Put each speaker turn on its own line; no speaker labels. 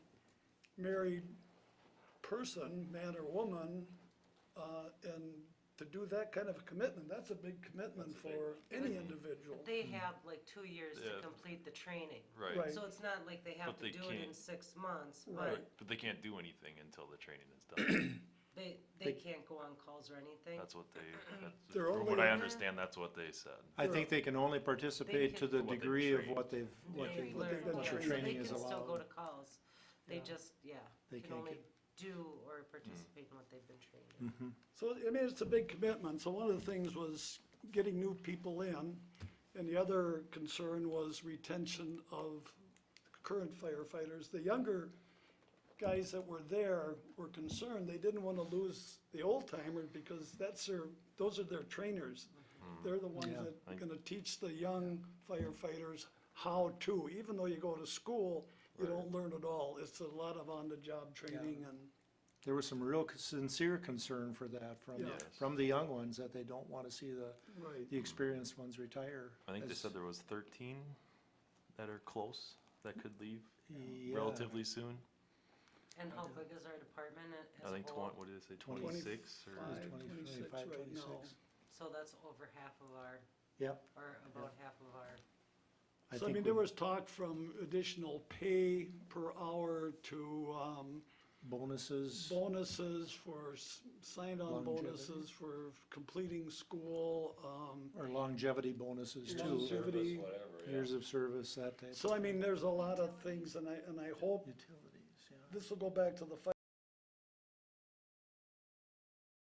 married person, man or woman, uh, and to do that kind of a commitment, that's a big commitment
That's a big
for any individual.
They have like two years to
Mm-hmm. Yeah.
complete the training.
Right.
right.
So it's not like they have
But
to
they
do it in
can't-
six months,
Right.
but
But they can't do anything until the training is done.
they, they can't go on calls or anything.
That's what they, that's,
They're
from what
only-
I understand, that's what they said.
I think they can only participate to
can-
the
What they've
degree of
trained.
what they've, what
They
they,
what
learn,
they've been
yeah, so
what your
trained.
training is
They can still go to
allowed.
calls. They just, yeah,
They
can
can't
only
get-
do or participate in what they've been trained in.
So, I mean, it's a big commitment, so one of the things was getting new people in, and the other concern was retention of current firefighters. The younger guys that were there were concerned, they didn't wanna lose the old timer, because that's their, those are their trainers. They're the ones that are gonna teach the young firefighters how to, even though you go to school, you don't learn it all, it's a lot of on-the-job training and.
There was some real c- sincere concern for that from,
Yeah.
Yes.
from the young ones, that they don't wanna see the,
Right.
the experienced ones retire.
I think they
as-
said there was thirteen that are close, that could leave
Yeah.
relatively soon.
And how big is our department a-
I
as a
think twen-
whole?
what did they say,
Twenty-
twenty-six
It was
or?
Five,
20,
26
25,
right
26.
now.
So that's over half of our,
Yep.
or about half of our,
So I
think
mean, there
we-
was talk from additional pay per hour to um,
Bonuses,
bonuses for, s- sign-on
Longevity.
bonuses for completing school. um,
or longevity bonuses too,
Longevity. activity,
years of service, that type.
So I mean, there's a lot of things, and I, and I hope
Utilities, yeah.
this will go back to the fire